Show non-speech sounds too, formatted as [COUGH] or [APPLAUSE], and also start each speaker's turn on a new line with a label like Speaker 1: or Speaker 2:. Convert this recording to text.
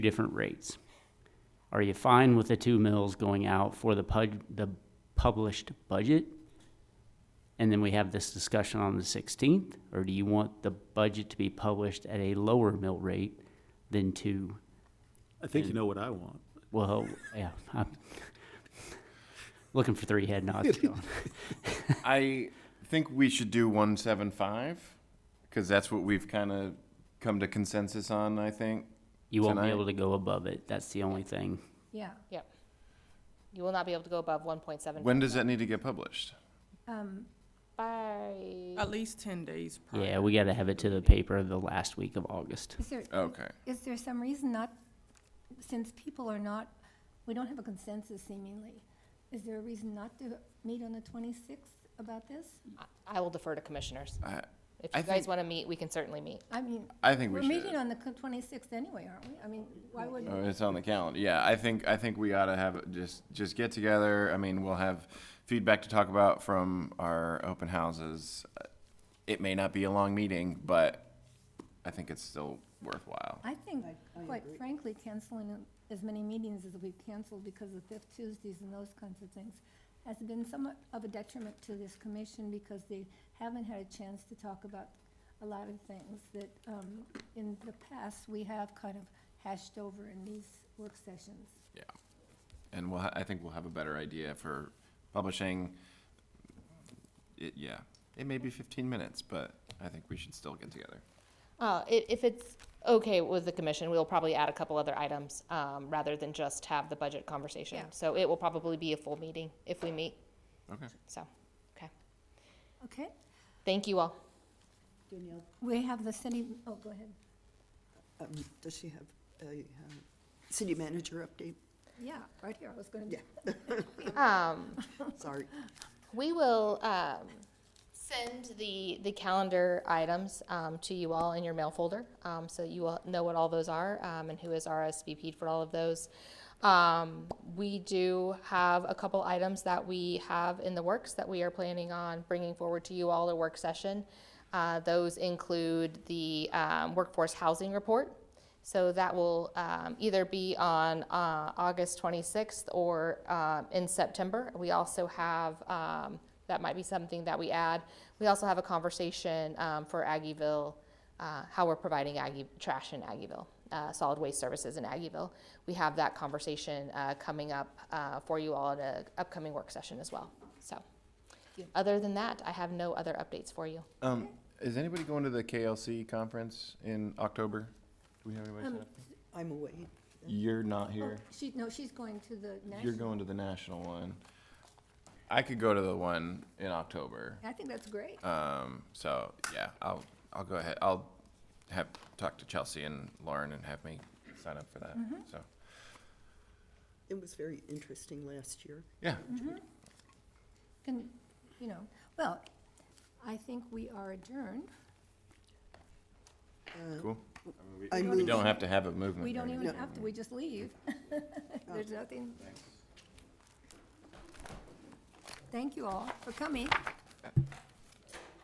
Speaker 1: different rates. Are you fine with the two mills going out for the pub, the published budget? And then we have this discussion on the sixteenth, or do you want the budget to be published at a lower mill rate than two?
Speaker 2: I think you know what I want.
Speaker 1: Well, [LAUGHS] yeah, I'm looking for three head nods. John.
Speaker 3: I think we should do one seven five because that's what we've kind of come to consensus on. I think.
Speaker 1: You won't be
Speaker 3: Tonight?
Speaker 1: able to go above it, that's the only thing.
Speaker 4: Yeah,
Speaker 5: Yep. You will not be able to go above one point seven.
Speaker 3: When does that need to get published?
Speaker 4: um,
Speaker 5: By,
Speaker 6: At least ten days prior.
Speaker 1: Yeah, we gotta have it to the paper the last week of August.
Speaker 4: is there,
Speaker 3: Okay.
Speaker 4: is there some reason not, since people are not, we don't have a consensus seemingly, is there a reason not to meet on the twenty-sixth about this?
Speaker 5: I will defer to commissioners.
Speaker 3: I,
Speaker 5: If
Speaker 3: I
Speaker 5: you guys
Speaker 3: think-
Speaker 5: want to meet, we can certainly meet.
Speaker 4: I mean,
Speaker 3: I think
Speaker 4: we're
Speaker 3: we should.
Speaker 4: meeting on the twenty-sixth anyway, aren't we? I mean, why would,
Speaker 3: Oh, it's on the calendar. Yeah, I think I think we ought to have it- just just get together. I mean, we'll have feedback to talk about from our open houses. It may not be a long meeting, but I think it's still worthwhile.
Speaker 4: I think, quite frankly, canceling as many meetings as we've canceled because of fifth Tuesdays and those kinds of things has been somewhat of a detriment to this commission because they haven't had a chance to talk about a lot of things that, um, in the past, we have kind of hashed over in these work sessions.
Speaker 3: Yeah. And we'll, ha- I think we'll have a better idea for publishing. It, yeah, it may be fifteen minutes, but I think we should still get together.
Speaker 5: Uh, if, if it's okay with the commission, we'll probably add a couple other items, um, rather than just have the budget conversation.
Speaker 4: Yeah.
Speaker 5: So it will probably be a full meeting if we meet,
Speaker 3: Okay.
Speaker 5: so, okay.
Speaker 4: Okay,
Speaker 5: Thank you all.
Speaker 7: Danielle,
Speaker 4: we have the city, oh, go ahead.
Speaker 7: um, does she have a um, city manager update?
Speaker 4: Yeah, right here, I was gonna,
Speaker 7: Yeah.
Speaker 5: Um,
Speaker 7: Sorry.
Speaker 5: We will um, send the, the calendar items um, to you all in your mail folder, um, so you all know what all those are um, and who is RSVP'd for all of those. Um, We do have a couple items that we have in the works that we are planning on bringing forward to you all at work session. Uh, Those include the um, workforce housing report, so that will um, either be on uh, August 26th or um, in September. We also have, um, that might be something that we add. We also have a conversation um, for Aggieville, uh, how we're providing Aggie, trash in Aggieville, uh, solid waste services in Aggieville. We have that conversation uh, coming up uh, for you all at an upcoming work session as well. So, other than that, I have no other updates for you.
Speaker 3: Um, is anybody going to the KLC conference in October? Do we have anybody set up?
Speaker 7: I'm away.
Speaker 3: You're not
Speaker 4: Um, oh,
Speaker 3: here.
Speaker 4: she, no, she's going to the
Speaker 3: You're
Speaker 4: national,
Speaker 3: going to the national one. I could go to the one in October.
Speaker 4: I think that's great.
Speaker 3: Um, so yeah, I'll I'll go ahead. I'll have talk to Chelsea and Lauren and have me sign up for that.
Speaker 4: Mm-hmm.
Speaker 3: So
Speaker 7: It was very interesting last year.
Speaker 3: yeah.
Speaker 4: Can, you know, well, I think we are adjourned. Mm-hmm.
Speaker 3: Cool.
Speaker 7: I
Speaker 3: We
Speaker 7: move,
Speaker 3: don't have to have a movement.
Speaker 4: We don't
Speaker 3: right?
Speaker 4: even have to, we just leave. [LAUGHS] There's nothing. Thank you all for coming.